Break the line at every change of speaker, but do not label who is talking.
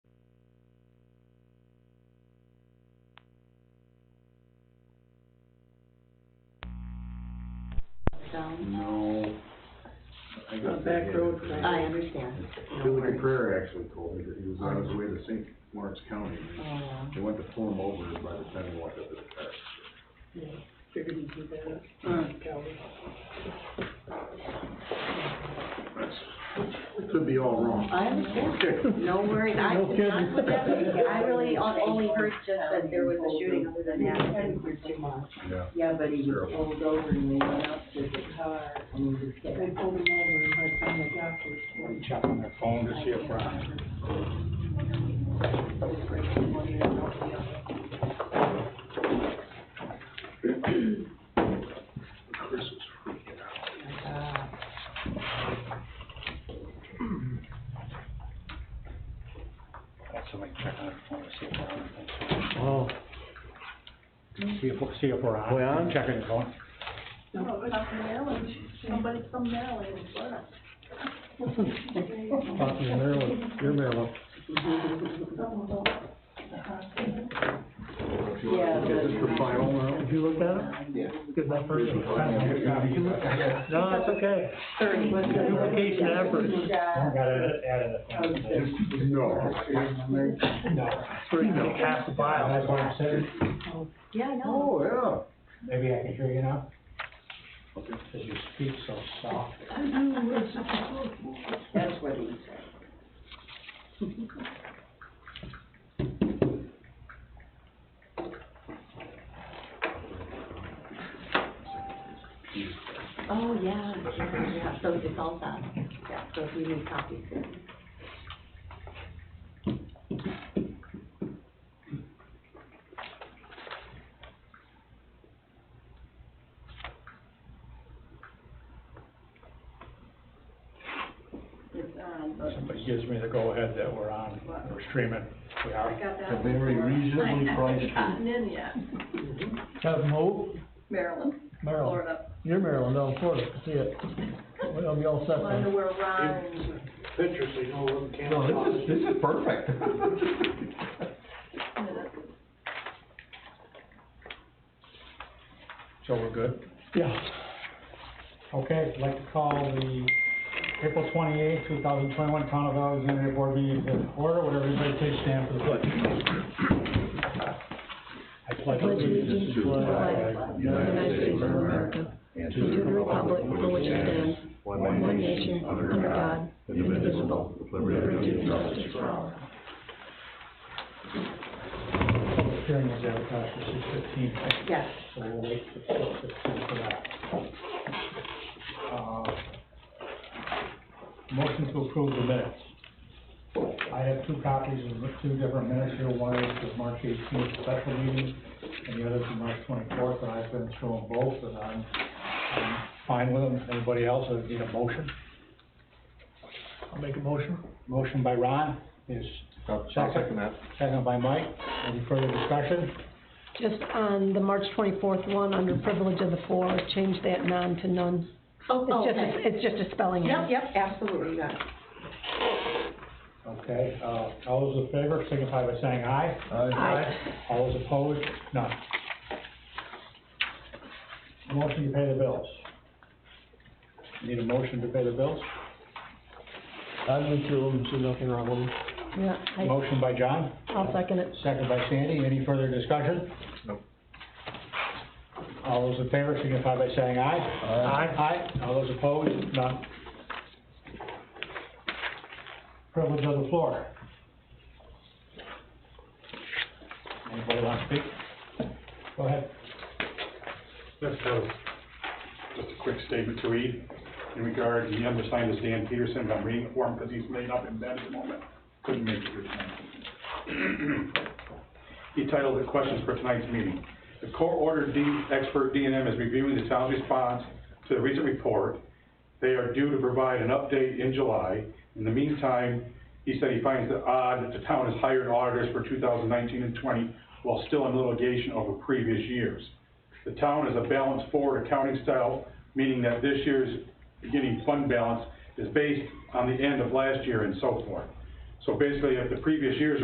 sound?
No. I got
A back
that
road
headed for-
I understand. No
Billy
worries.
Caprera actually told me that he was on his way to St. Lawrence County.
Oh, wow.
They went to pull him over and by the time he walked up to the car.
Yeah, figured he'd do that.
Uh,
Calvin.
It could be all wrong.
I understand.
Okay.
Uh, No worries. I,
No kidding.
I would definitely- I really on- only heard just that there was a shooting other than that. I didn't hear too much.
Yeah.
Yeah, but he was
Terrible.
pulled over and they went up to the car and he was
They
hit.
pulled him over and by the time they got there, it was
Check on their phone to see if we're on.
Chris is freaking out.
Got somebody check on their phone to see if we're on. See if, see if we're on.
We on?
uh, Checking the phone.
Somebody from Maryland, Florida.
Talking to Marilyn, you're Marilyn.
Yeah,
Okay, this for final now?
Did you look at it?
Yeah.
Good enough for you.
Yeah.
No, it's okay.
thirty.
Duplication effort.
Shot.
Gotta add it.
No.
Three, half the file.
That's what I'm saying.
Yeah, I know.
Oh, yeah.
Maybe I can hear you now.
Okay.
Cause you speak so soft.
That's what he said.
Oh, yeah, yeah, yeah, so it's all done, yeah, so if you need copies, then.
It's, um,
Somebody gives me the go-ahead that we're on, we're streaming. We
I
are.
got that.
A very reasonably priced
I haven't gotten in yet.
Have Mo,
Maryland,
Marilyn,
Florida.
you're Marilyn, down in Florida, see it. We'll be all set
I wonder
then.
where Ron and
pictures, so you know, where the camera.
No,
was.
this is, this is perfect.
So we're good?
Yeah.
Okay, I'd like to call the April twenty-eighth, two thousand twenty-one Town of Alexandria Board meeting to order. Would everybody please stand for the pledge? I pledge allegiance to the flag of the United States of America and to the republic for which it stands, one nation, under God, indivisible, with liberty and justice for all. Public hearing was advertised for six fifteen.
Yes.
So we'll wait for six fifteen for that. Uh, Motion to approve the minutes. I have two copies of the two different minutes here, one is the March eighteenth special meeting, and the other is the March twenty-fourth, and I've been through them both, and I'm, I'm fine with them. Anybody else, I need a motion?
I'll make a motion.
Motion by Ron is second,
that.
second by Mike. Any further discussion?
Just on the March twenty-fourth one, under privilege of the floor, change that non to none.
Oh,
It's
oh,
just,
okay.
a- it's just a spelling
Yep,
error.
yep, absolutely, you got it.
Okay, uh, all those in favor signify by saying aye.
Aye.
All those opposed, none. Motion to pay the bills. Need a motion to pay the bills?
I've been through them, see nothing wrong with them.
Yeah, I,
Motion by John,
I'll second it.
second by Sandy. Any further discussion?
No.
All those in favor signify by saying aye. Aye. Aye. All those opposed, none. Privilege of the floor. Anybody want to speak? Go ahead.
Yes, sir. Just a quick statement to read in regard, the undersigned is Dan Peterson, but I'm reading for him because he's laid up in bed at the moment, couldn't make it here tonight. He titled the questions for tonight's meeting. The court ordered D, expert D and M is reviewing the town's response to the recent report. They are due to provide an update in July. In the meantime, he said he finds it odd that the town has hired auditors for 2019 and 20 while still in litigation over previous years. The town is a balanced forward accounting style, meaning that this year's beginning fund balance is based on the end of last year and so forth. So basically, if the previous year's